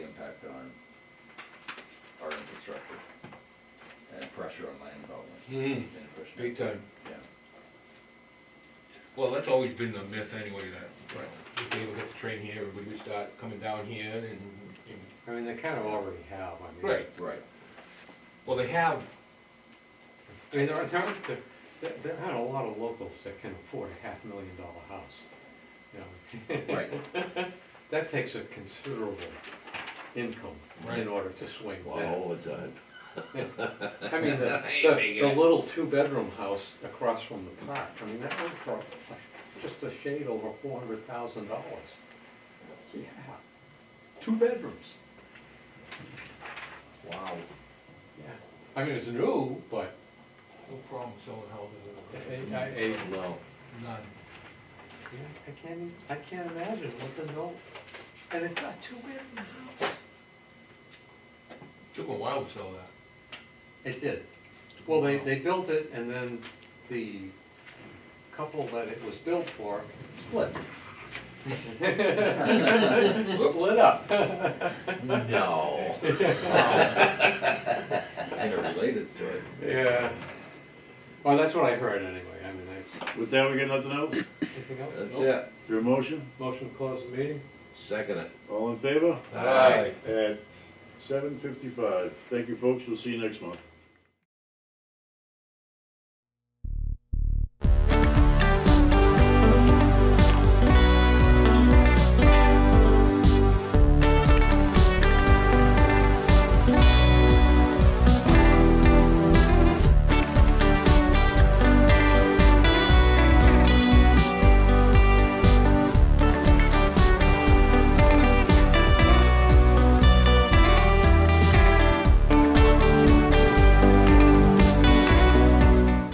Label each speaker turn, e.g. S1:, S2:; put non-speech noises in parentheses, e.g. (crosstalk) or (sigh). S1: impact on our infrastructure and pressure on land development.
S2: Mm.
S1: And pushing it.
S2: Big time.
S1: Yeah.
S2: Well, that's always been the myth anyway, that, well, if they ever get the train here, everybody would start coming down here and, and,
S3: I mean, they kind of already have, I mean.
S2: right,
S1: Right,
S2: well, they have,
S3: I mean, there are, there aren't, there- there, there aren't a lot of locals that can afford a half million dollar house. You know,
S1: right.
S3: that takes a considerable income
S2: Right.
S3: in order to swing that.
S4: All the time.
S3: I mean,
S4: (laughs)
S3: the, the, the little two-bedroom house across from the park, I mean, that went for just a shade over four hundred thousand dollars. Yeah, two bedrooms,
S4: Wow.
S3: yeah. I mean, it's new, but eh,
S2: no problem selling
S3: a,
S2: houses,
S3: a, a
S4: No.
S2: none.
S3: Yeah, I can't, even- I can't imagine what the no, and it's not two bedroom house.
S2: Took 'em a while to sell that.
S3: It did. Well, they, they built it and then the couple that it was built for split. (laughs) Split
S1: (laughs)
S3: up.
S4: (laughs) No.
S1: And a related story.
S3: Yeah. Well, that's what I heard anyway, I mean, I,
S5: With that, we got nothing else? Is
S3: anything else?
S1: That's
S3: Nope.
S1: it.
S5: there a motion?
S3: Motion to close the meeting?
S4: Second it.
S5: All in favor?
S2: Aye.
S5: At seven fifty-five. Thank you, folks. We'll see you next month.